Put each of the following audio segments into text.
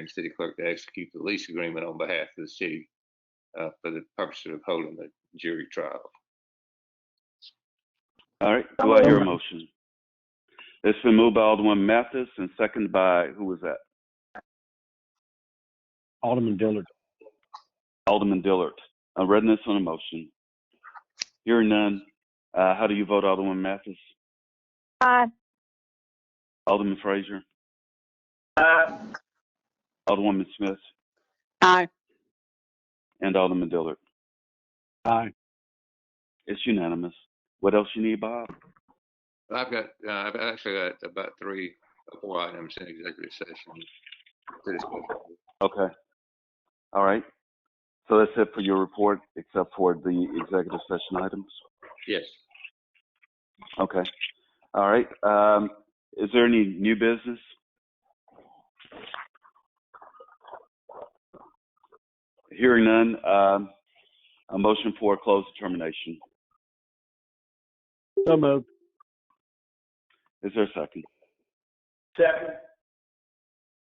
and city clerk to execute the lease agreement on behalf of the city uh, for the purpose of holding the jury trial. All right, do I hear a motion? It's been moved by Alderman Mathis and seconded by, who was that? Alderman Dillard. Alderman Dillard. Uh, readiness on a motion. Hearing none, uh, how do you vote, Alderman Mathis? Aye. Alderman Frazier? Alderwoman Smith Aye. and Alderman Dillard. Aye. It's unanimous. What else you need, Bob? I've got, uh, I've actually got about three, or four items in executive session. to discuss. Okay. All right. So that's it for your report, except for the executive session items. Yes, Okay. All right. Um, is there any new business? Hearing none, um, a motion for a closed determination. So moved. Is there a second? Second.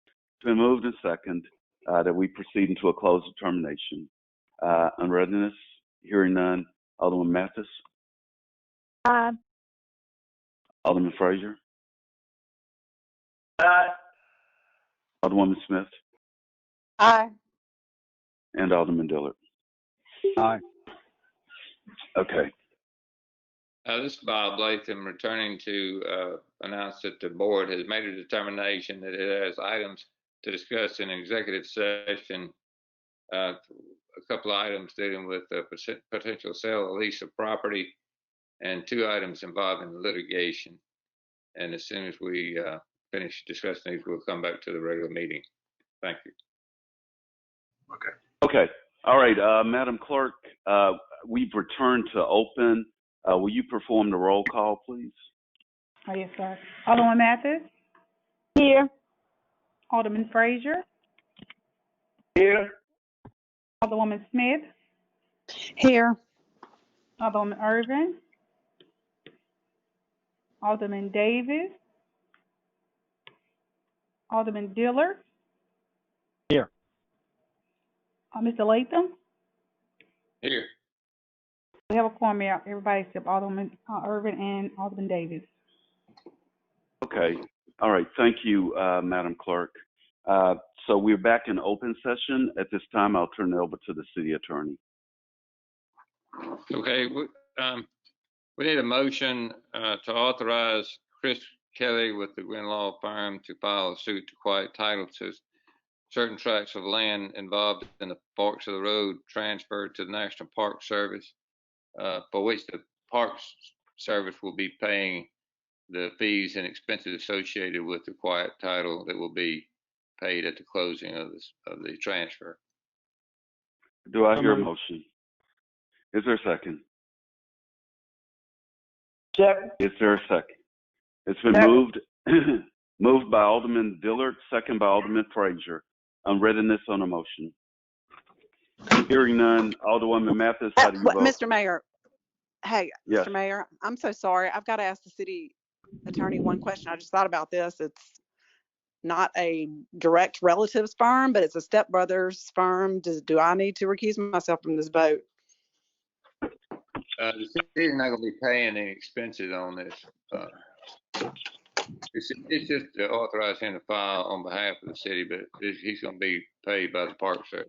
It's been moved and second, uh, that we proceed into a closed determination. Uh, unreadiness, hearing none. Alderman Mathis, Aye. Alderman Frazier, Aye. Alderwoman Smith, Aye. and Alderman Dillard. Aye. Okay. Uh, this is Bob Latham returning to uh, announce that the board has made a determination that it has items to discuss in executive session. Uh, a couple of items dealing with the poten- potential sale or lease of property and two items involving litigation. And as soon as we uh, finish discussing these, we'll come back to the regular meeting. Thank you. Okay. All right, uh, Madam Clerk, uh, we've returned to open. Uh, will you perform the roll call, please? Oh, yes, sir. Alderman Mathis, Here. Alderman Frazier, Here. Alderwoman Smith, Here. Alderman Irvin, Alderman Davis, Alderman Dillard. Here. Uh, Mr. Latham, Here. we have a quorum out, everybody except Alderman, uh, Irvin and Alderman Davis. Okay. All right. Thank you, uh, Madam Clerk. Uh, so we're back in open session. At this time, I'll turn it over to the city attorney. Okay, we, um, we need a motion, uh, to authorize Chris Kelly with the Gwin Law Firm to file a suit to quiet title to certain tracts of land involved in the Forks of the Road transferred to the National Park Service, uh, for which the Parks Service will be paying the fees and expenses associated with the quiet title that will be paid at the closing of this, of the transfer. Do I So hear a moved. motion? Is there a second? Second. Is there a second? It's been Second. moved, moved by Alderman Dillard, second by Alderman Frazier. I'm reading this on a motion. Hearing none. Alderwoman Mathis, how do you Uh, wha- vote? Mr. Mayor, hey, Yes. Mr. Mayor, I'm so sorry. I've got to ask the city attorney one question. I just thought about this. It's not a direct relatives firm, but it's a stepbrother's firm. Does, do I need to recuse myself from this vote? Uh, the city's not gonna be paying any expenses on this. uh, It's, it's just to authorize him to file on behalf of the city, but he's, he's gonna be paid by the Park Service.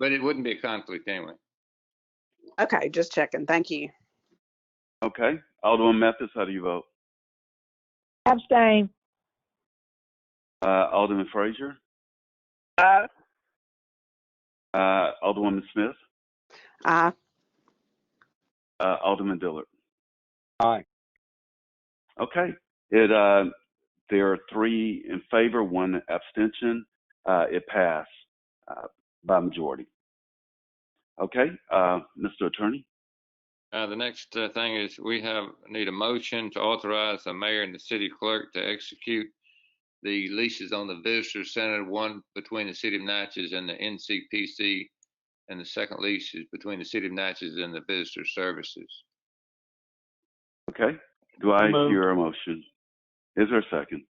But it wouldn't be a conflict anyway. Okay, just checking. Thank you. Okay. Alderman Mathis, how do you vote? Abstain. Uh, Alderman Frazier? Aye. Uh, Alderwoman Smith? Aye. Uh, Alderman Dillard? Aye. Okay. It, uh, there are three in favor, one abstention. Uh, it passed, uh, by majority. Okay, uh, Mr. Attorney? Uh, the next uh, thing is we have, need a motion to authorize the mayor and the city clerk to execute the leases on the visitor center, one between the city of Natchez and the NCPC. And the second lease is between the city of Natchez and the visitor services. Okay. Do I So moved. hear a motion? Is there a second?